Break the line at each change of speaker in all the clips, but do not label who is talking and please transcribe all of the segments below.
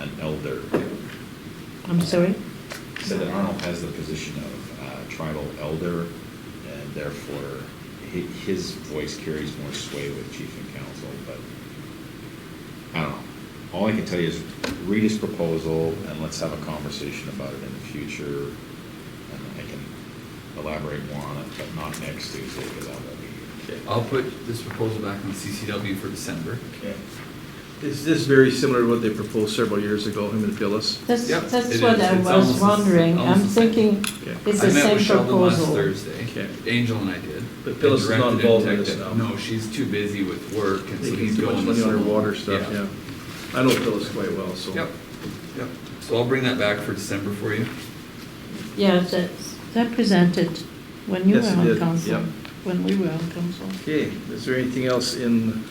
an elder.
I'm sorry?
So that Arnold has the position of uh, tribal elder, and therefore, hi- his voice carries more sway with chief and council, but I don't know. All I can tell you is read his proposal, and let's have a conversation about it in the future, and I can elaborate more on it, but not next Tuesday, because I won't be here.
I'll put this proposal back on CCW for December.
Okay.
Is this very similar to what they proposed several years ago, him and Phyllis?
That's,
Yep,
that's
it
what
is.
I
It's almost
was
the s-
wondering. I'm
almost the same.
thinking
Okay.
it's the same
I met with Sheldon last
proposal.
Thursday.
Okay.
Angel and I did.
But Phyllis is
I directed
not involved in
him to
this
tech-
now.
No, she's too busy with work and so
Thinking
he's
too much
going.
money
with someone.
Underwater stuff, yeah. I know Phyllis quite well, so.
Yep, yep. So I'll bring that back for December for you.
Yeah, that's, that presented when you were
Yes, it
on
did,
council,
yep.
when we were on council.
Okay, is there anything else in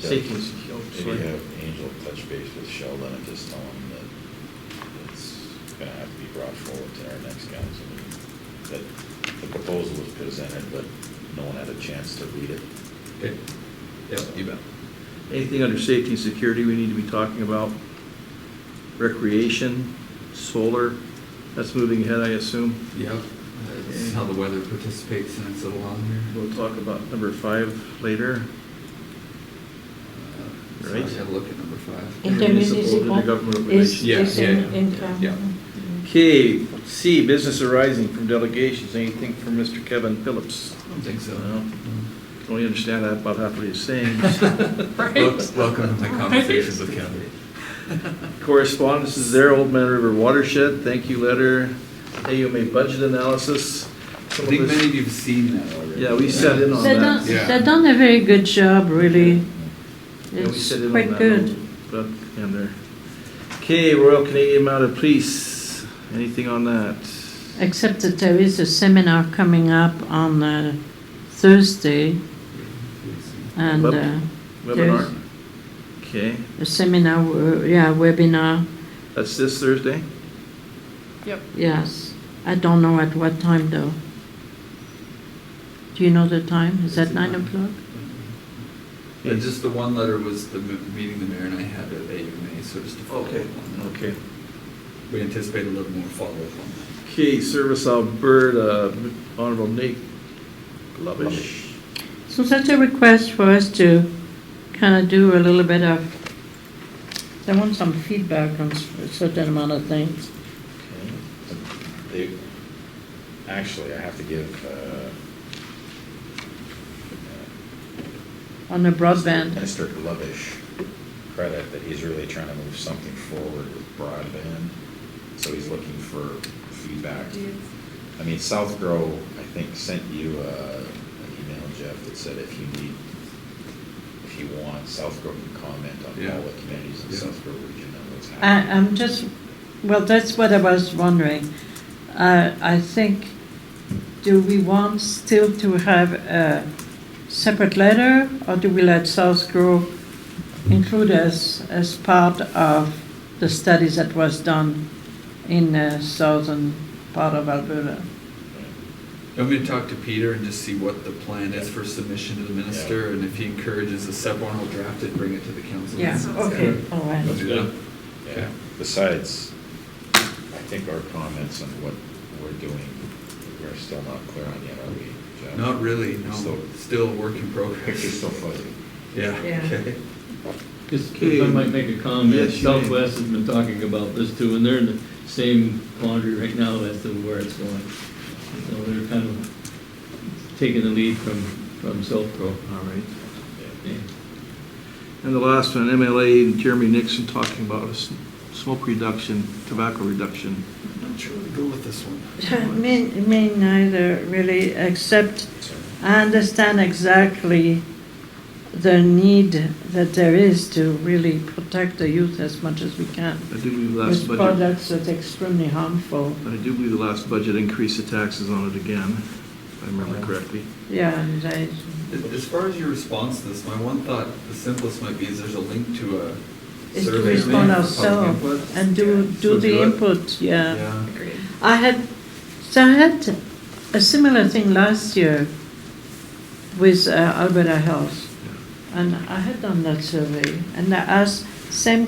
safety? and oh,
Maybe
security?
have Angel touch base with Sheldon and just tell him that it's gonna have to be brought forward to our next council meeting. That the proposal was presented, but no one had a chance to read it.
Okay. Yep, you bet.
Anything under safety and security we need to be talking about? Recreation, solar, that's moving ahead, I assume.
Yep. That's how the weather participates in its little on here.
We'll talk about number five later.
Uh, So I
Right.
gotta look at number five.
Intermunicipal intergovernmental
Intermunicipal is,
relations.
Yeah,
is
yeah,
in,
yeah,
in.
yeah.
Okay, C, business arising from delegations, anything from Mr. Kevin Phillips?
I don't think so.
No.
No.
Don't really Oh, understand that about half what he's saying.
Wel- Welcome to my conversations with Kevin.
Correspondence is there, Old Man River Watershed, thank you letter, AUMA budget analysis.
I
Some of
think
this-
many of you've seen that already.
Yeah, we sat in on
They've done,
that.
Yeah.
they've done a very good job, really.
Yeah, we
It's
sat in on
quite
that,
good.
But, and there. Okay, Royal Canadian Mounted Police, anything on that?
Except that there is a seminar coming up on uh, Thursday and
Web-
uh,
Webinar? Okay,
a seminar, uh, yeah, webinar,
that's this Thursday?
yes. I don't know at what time though. Do you know the time? Is that
It's at
nine
nine.
o'clock?
And just the one letter was the m- meeting the mayor and I had at AUMA, so just to follow up on that.
Okay.
We anticipate a little more follow-up on
Okay, Service Alberta, Honorable Nate Glovish.
So that's a request for us to kind of do a little bit of, they want some feedback on s- a certain amount of things.
They, actually, I have to give, uh,
On the broadband,
Mr. Glovish credit that he's really trying to move something forward with broadband, so he's looking for feedback. I mean, South Grow, I think, sent you uh, an email, Jeff, that said if you need, if you want, South Grow can comment on
Yeah.
all the communities in
Yeah.
South Grow region and what's
I,
happening.
I'm just, well, that's what I was wondering. Uh, I think, do we want still to have a separate letter, or do we let South Grove include us as part of the studies that was done in the southern part of Alberta?
that. I'm gonna talk to Peter and just see what the plan is for submission to the minister, and if he encourages a sub-one, we'll draft it, bring it to the council.
Yeah, okay, all right.
We'll do that.
Yeah. Besides, I think our comments on what we're doing, we're still not clear on yet, are we, Jeff?
Not really, no,
So-
still a work in
Picture's
progress.
still fuzzy.
Yeah,
Yeah.
okay.
Just if I might make a comment,
Yes, you may.
Southwest has been talking about this too, and they're in the same quandary right now as to where it's going. So they're kind of taking the lead from, from South Pro.
All right.
Yeah.
Yeah.
And the last one, MLA and Jeremy Nixon talking about s- smoke reduction, tobacco reduction.
I'm not sure where to go with this one.
Me, me neither, really, except
So-
I understand exactly the need that there is to really protect the youth as much as we can.
I do believe the last
With
budget,
products that are extremely harmful,
I do believe the last budget increased the taxes on it again, if I remember correctly.
yeah, and they-
As- As far as your response to this, my one thought, the simplest might be is there's a link to a
is to
survey.
respond
made for public
ourselves
input.
and do,
So
do the
it.
input, yeah.
Yeah.
I had, so I had a similar thing last year with uh, Alberta Health. And I had done that survey, and I asked same